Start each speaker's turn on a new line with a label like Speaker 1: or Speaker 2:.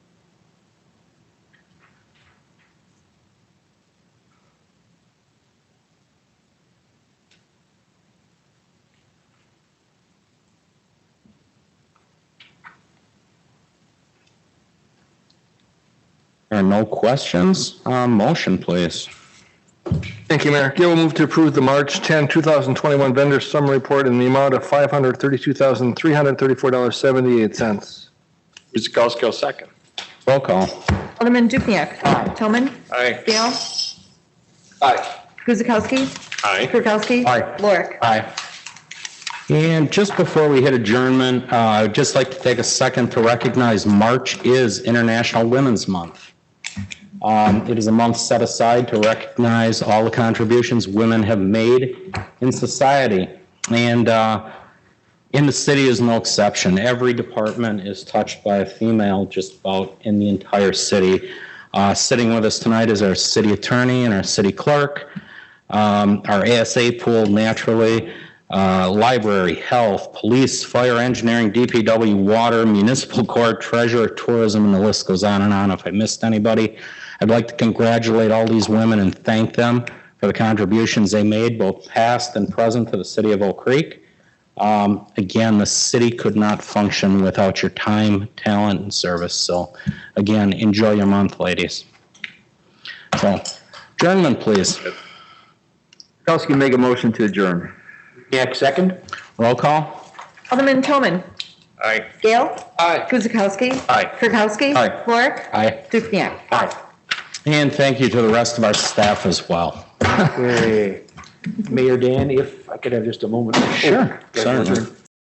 Speaker 1: There are no questions. Um, Motion, please.
Speaker 2: Thank you, Mayor. Gail will move to approve the March 10, 2021 vendor summary report in the amount of $532,334.78.
Speaker 3: Guzekowski will second.
Speaker 1: Roll call.
Speaker 4: Alderman Dukniak. Toman.
Speaker 3: Aye.
Speaker 4: Gale.
Speaker 3: Aye.
Speaker 4: Guzekowski.
Speaker 3: Aye.
Speaker 4: Kirkowski.
Speaker 1: Aye.
Speaker 4: Lorik.
Speaker 1: Aye. And just before we hit adjournment, uh, I'd just like to take a second to recognize March is International Women's Month. Um, It is a month set aside to recognize all the contributions women have made in society. And uh, in the city is no exception. Every department is touched by a female just about in the entire city. Uh, Sitting with us tonight is our city attorney and our city clerk um, our ASA pool naturally, uh, library, health, police, fire, engineering, DPW, water, municipal court, treasurer, tourism, and the list goes on and on. If I missed anybody, I'd like to congratulate all these women and thank them for the contributions they made, both past and present, to the city of Oak Creek. Um, Again, the city could not function without your time, talent, and service. So again, enjoy your month, ladies. So, adjournment, please.
Speaker 5: Kirkowski make a motion to adjourn.
Speaker 3: Dukenyak, second.
Speaker 1: Roll call.
Speaker 4: Alderman Toman.
Speaker 3: Aye.
Speaker 4: Gale.
Speaker 3: Aye.
Speaker 4: Guzekowski.
Speaker 3: Aye.
Speaker 4: Kirkowski.
Speaker 1: Aye.
Speaker 4: Lorik.
Speaker 1: Aye.
Speaker 4: Dukniak.
Speaker 1: And thank you to the rest of our staff as well.
Speaker 3: Mayor Dan, if I could have just a moment.
Speaker 1: Sure,
Speaker 3: Oh,
Speaker 1: certainly.
Speaker 3: I'd